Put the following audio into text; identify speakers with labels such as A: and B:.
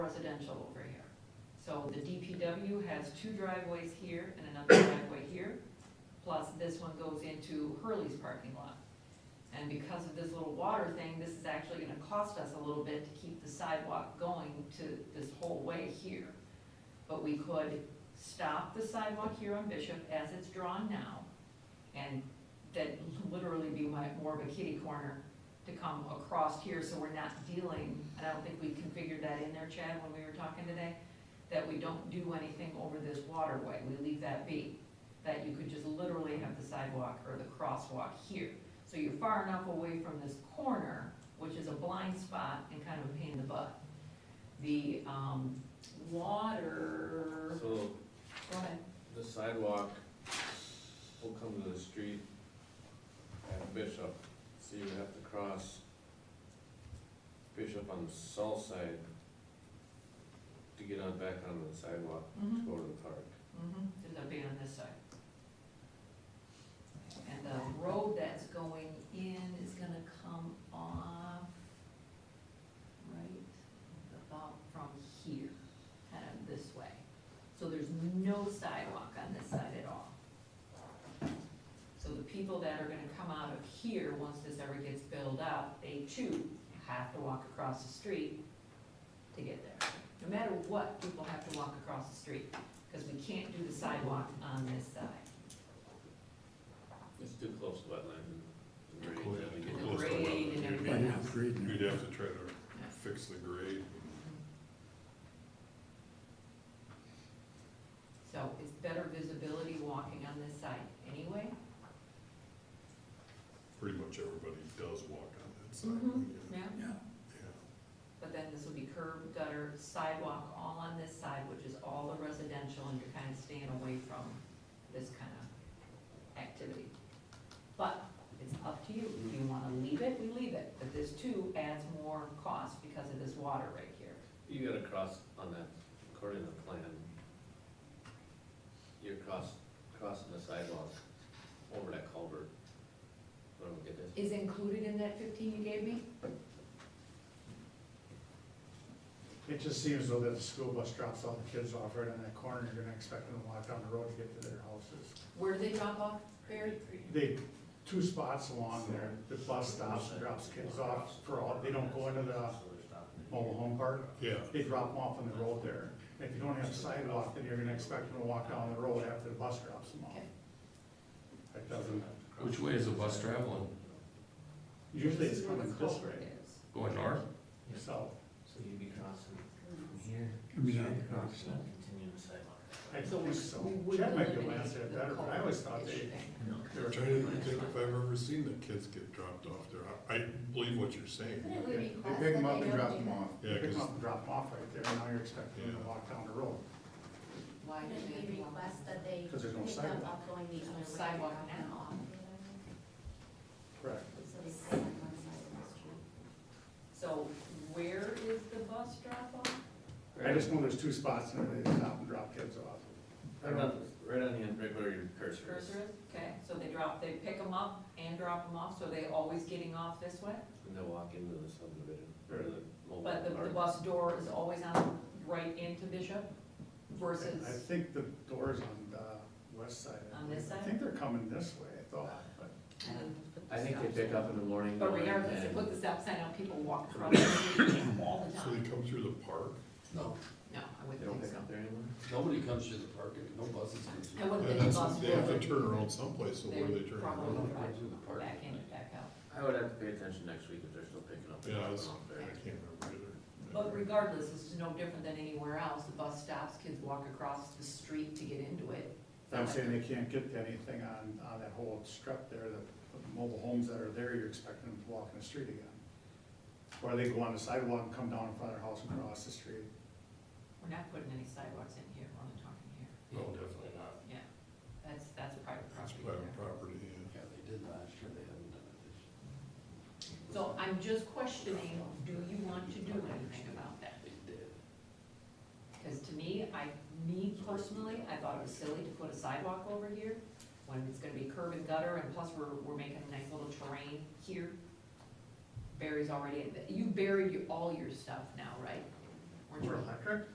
A: residential over here. So the DPW has two driveways here and another driveway here, plus this one goes into Hurley's parking lot. And because of this little water thing, this is actually gonna cost us a little bit to keep the sidewalk going to this whole way here. But we could stop the sidewalk here on Bishop as it's drawn now, and that literally be my, more of a kitty corner to come across here, so we're not dealing, and I don't think we configured that in there, Chad, when we were talking today, that we don't do anything over this waterway, we leave that be. That you could just literally have the sidewalk or the crosswalk here. So you're far enough away from this corner, which is a blind spot and kind of a pain in the butt. The, um, water,
B: So
A: go ahead.
B: the sidewalk will come to the street at Bishop, so you would have to cross Bishop on the south side to get on back onto the sidewalk to
A: Mhm.
B: go to the park.
A: Mm-hmm, there's a bay on this side. And the road that's going in is gonna come off right about from here, kind of this way. So there's no sidewalk on this side at all. So the people that are gonna come out of here, once this ever gets built out, they too have to walk across the street to get there. No matter what, people have to walk across the street because we can't do the sidewalk on this side.
B: It's too close to wetland and
C: Oh, yeah,
B: rain.
C: too
A: The
C: close to
A: grade
C: wetland.
A: and
C: You'd
A: everything
C: have-
A: else.
D: Agreed.
C: You'd have to try to fix the grade.
A: So it's better visibility walking on this side anyway.
C: Pretty much everybody does walk on that side.
A: Mhm.
C: yeah,
A: Yeah.
D: Yeah,
C: yeah.
A: But then this will be curb, gutter, sidewalk, all on this side, which is all the residential, and you're kind of staying away from this kind of activity. But it's up to you. If you want to leave it, we leave it. But this too adds more cost because of this water right here.
B: You gotta cross on that, according to the plan. You're cross, crossing the sidewalk over that culvert, whatever it is.
A: Is included in that fifteen you gave me?
E: It just seems though that the school bus drops all the kids off right on that corner, you're gonna expect them to walk down the road to get to their houses.
A: Where do they drop off, Barry?
E: They, two spots along there, the bus stops and drops kids off for all, they don't go into the mobile home park.
C: Yeah,
E: They drop them off on the road there. And If you don't have a sidewalk, then you're gonna expect them to walk down the road after the bus drops them off.
A: Okay.
E: That doesn't,
F: Which way is the bus traveling?
E: usually it's
A: This is where
E: coming
A: the
E: this
A: culvert
E: way,
A: is.
F: Going north?
E: so.
G: So you'd be crossing
A: Mm-hmm.
G: from here?
D: I mean, I-
G: straight across, not continuing the sidewalk.
E: I don't think so.
A: We would
E: Chad might be able to
A: eliminate
E: answer that
A: the
E: better, but I always thought
A: culvert
E: they,
A: issue.
E: they were.
C: I'm trying to think if I've ever seen the kids get dropped off there. I I believe what you're saying.
H: Couldn't we
E: They
H: request
D: pick
H: that
D: them up
H: they
D: and
H: don't
D: drop
H: do
D: them
H: that?
D: off.
C: Yeah,
E: Pick 'em
C: cause
E: up and drop 'em off right there, and now you're expecting them to
C: Yeah.
E: walk down the road.
A: Why do
H: Couldn't
A: they
H: we
A: want
H: request that they pick
E: 'Cause there's no
H: them
E: sidewalk.
H: up going the
A: There's no
H: other way?
A: sidewalk
H: and drop them
A: now.
H: off?
E: Correct.
H: So they stay on one side of the street.
A: So where is the bus drop off?
E: I just know there's two spots and they stop and drop kids off. I
B: Right on,
E: don't,
B: right on the end, right where your cursor is.
A: Cursor is, okay, so they drop, they pick them up and drop them off, so they always getting off this way?
B: And they'll walk into the subdivision, or the mobile.
A: But the, the
B: park.
A: bus door is always on, right into Bishop
E: I
A: versus,
E: think the door's on the west side. I
A: On this
E: believe.
A: side?
E: I think they're coming this way, I thought, but
A: and
B: I think they pick up in the morning.
A: But
B: going
A: regardless, they
B: and-
A: put the stop sign out, people walk across the street all the
C: so they
A: time.
C: come through the park.
A: No, I
B: They
A: wouldn't
B: don't
A: think
B: pick
A: so.
B: up there anymore?
F: Nobody comes through the park, and no buses come
A: I wouldn't
C: Yeah,
A: think the
C: that's,
A: bus
C: they have to
A: would,
C: turn around someplace, so where do
A: they
C: they turn
A: probably
C: around?
A: would
F: Go through the
A: drive
F: park.
A: back in and back out.
B: I would have to pay attention next week if they're still picking up.
C: Yeah, I was,
B: Off
C: I
B: there.
C: can't remember either.
A: But regardless, it's no different than anywhere else, the bus stops, kids walk across the street to get into it.
E: I'm saying they can't get to anything on, on that whole strip there, the the mobile homes that are there, you're expecting them to walk in the street again. Or they go on the sidewalk and come down in front of their house and cross the street.
A: We're not putting any sidewalks in here, we're only talking here,
C: No, definitely not.
A: yeah, that's, that's private
C: It's
A: property
C: private
A: there.
C: property, yeah.
F: Yeah, they did last year, they haven't done it this year.
A: So I'm just questioning, do you want to do anything about that?
F: They did.
A: Because to me, I, me personally, I thought it was silly to put a sidewalk over here when it's gonna be curb and gutter and plus we're, we're making a nice little terrain here. Barry's already, you buried your- all your stuff now, right?
I: Weren't you-
A: For electric?